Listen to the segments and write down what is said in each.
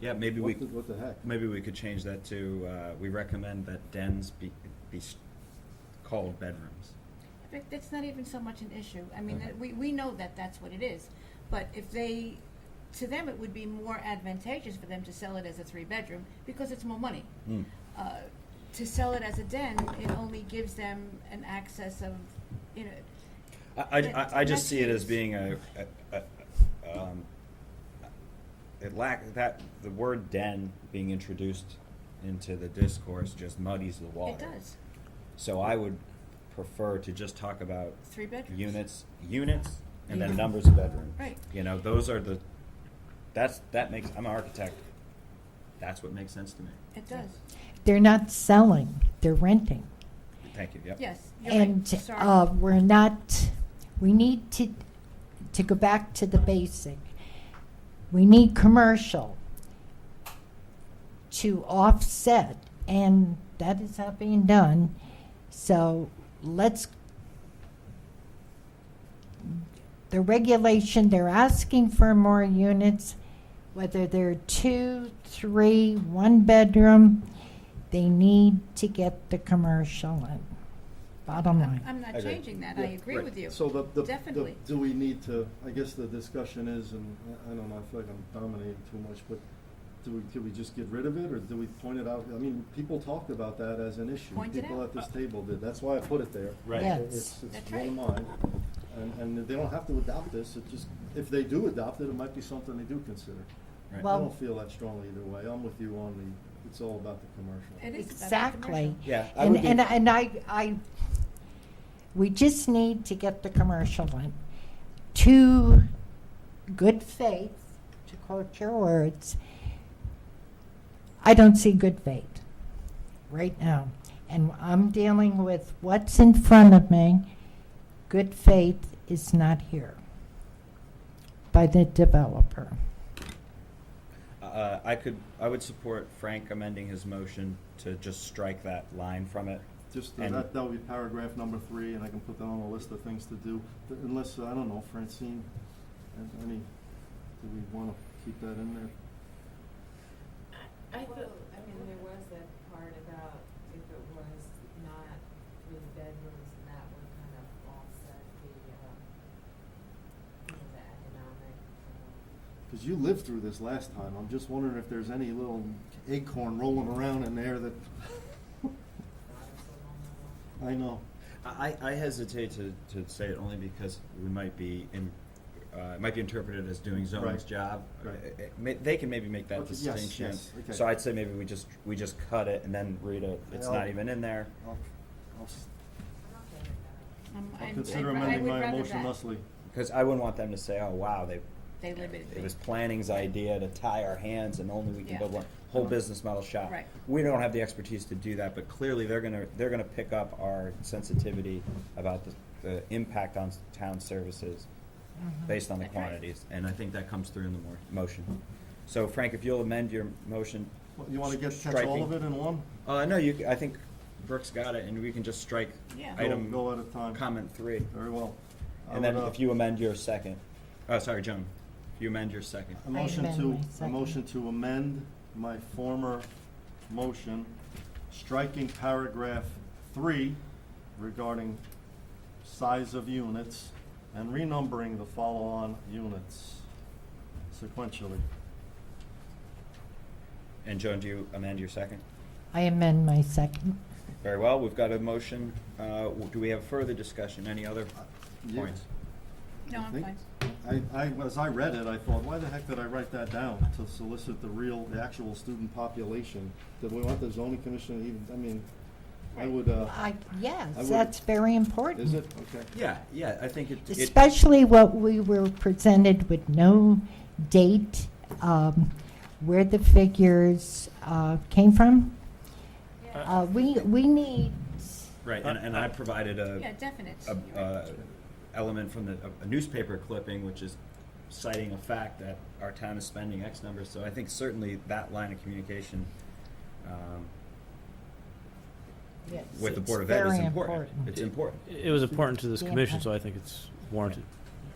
Yeah, maybe we, What the, what the heck? maybe we could change that to, uh, we recommend that dens be, be s- called bedrooms. Rick, that's not even so much an issue. I mean, Okay. that- we, we know that that's what it is. But if they, to them, it would be more advantageous for them to sell it as a three-bedroom because it's more money. Mm. Uh, To sell it as a den, it only gives them an access of, you know, I, I- I, I just see it as That's- being a, a, a- um, it lack, that, the word den being introduced into the discourse just muddies the water. it does, So I would prefer to just talk about three bedrooms. units, units, and then Units. numbers of bedrooms. Right. You know, those are the, that's, that makes, I'm an architect, that's what makes sense to me. It does, They're not selling, they're renting. Thank you, yep. yes. you're right. And Sorry. uh, we're not, we need to, to go back to the basic. We need commercial to offset, and that is not being done. So let's, the regulation, they're asking for more units, whether they're two, three, one bedroom, they need to get the commercial in. Bottom line. I'm not Agree. changing that, I Yeah, agree right. with you. So the, the, the, Definitely. do we need to, I guess the discussion is, and I- I don't know, I feel like I'm dominating too much, but do we, could we just get rid of it, or do we point it out? I mean, people talked about that as an issue. Point it People out. at this table did, that's why I put it there. Right. Yeah. It's, it's That's one of mine, and, and they don't have to adopt this, it just, if they do adopt it, it might be something they do consider. Right. I Well- don't feel that strongly either way, I'm with you on the, it's all about the commercial. It is about the Exactly. commercial. Yeah, I And, would be, and, and I, I, we just need to get the commercial in. To good faith, to quote your words, I don't see good faith right now. And I'm dealing with what's in front of me. Good faith is not here by the developer. uh, I could, I would support Frank amending his motion to just strike that line from it. Just, uh, And- that, that would be paragraph number three, and I can put that on a list of things to do, th- unless, uh, I don't know, Francine, and any, do we wanna keep that in there? I thought, I mean, there was that part about if it was not three bedrooms and that would kind of offset the, um, you know, the economic, um, Cause you lived through this last time, I'm just wondering if there's any little acorn rolling around in there that, products along the line. I know. I, I hesitate to, to say it only because we might be in, uh, it might be interpreted as doing zoning's Right. job. Right. It- it may- They can maybe make that Okay, yes, distinction. yes, okay. So I'd say maybe we just, we just cut it and then read it, it's I'll- not even in there. I'll, I'll s- I'm okay with that. Um, I'll I'd- consider I'd ra- I amending would my rather motion, that. Leslie. Because I wouldn't want them to say, oh, wow, they, They limited me. it was planning's idea to tie our hands and only we can Yeah. build one, whole business model shop. Right. We don't have the expertise to do that, but clearly they're gonna, they're gonna pick up our sensitivity about the, the impact on s- town services based on the Mm-hmm. That's right. quantities, and I think that comes through in the mor- motion. So Frank, if you'll amend your motion, What, You wanna get, catch all of Striking. it in one? uh, no, you, c- I think Brooks got it, and we can just strike Yeah. Go- item, Go at a time. comment three. Very well. I And then would, uh, if you amend your second, oh, sorry, Joan, if you amend your second. A motion amend my to, a second. motion to amend my former motion, striking paragraph three regarding size of units and renumbering the follow-on units sequentially. And Joan, do you amend your second? I amend my second. Very well, we've got a motion, uh, w- do we have further discussion, any other Yeah. points? No, I I'm think- fine. I, I, as I read it, I thought, why the heck did I write that down to solicit the real, the actual student population? Did we want the zoning commission to even, I mean, I would, uh, I, yes, I would- that's very important. is it? Okay. Yeah, yeah, I think it, it, Especially what we were presented with no date, um, where the figures, uh, came from. Uh, we, we need, right, and, and I provided a. Yeah, definite. a, You're right. uh, element from the, a- a newspaper clipping, which is citing a fact that our town is spending X number, so I think certainly that line of communication, um, yes, with the it's Board of Ed is very important. It's It- important. It was important to this Yeah. commission, so I think it's warranted.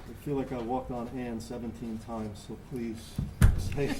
I feel like I walked on Ann seventeen times, so please say,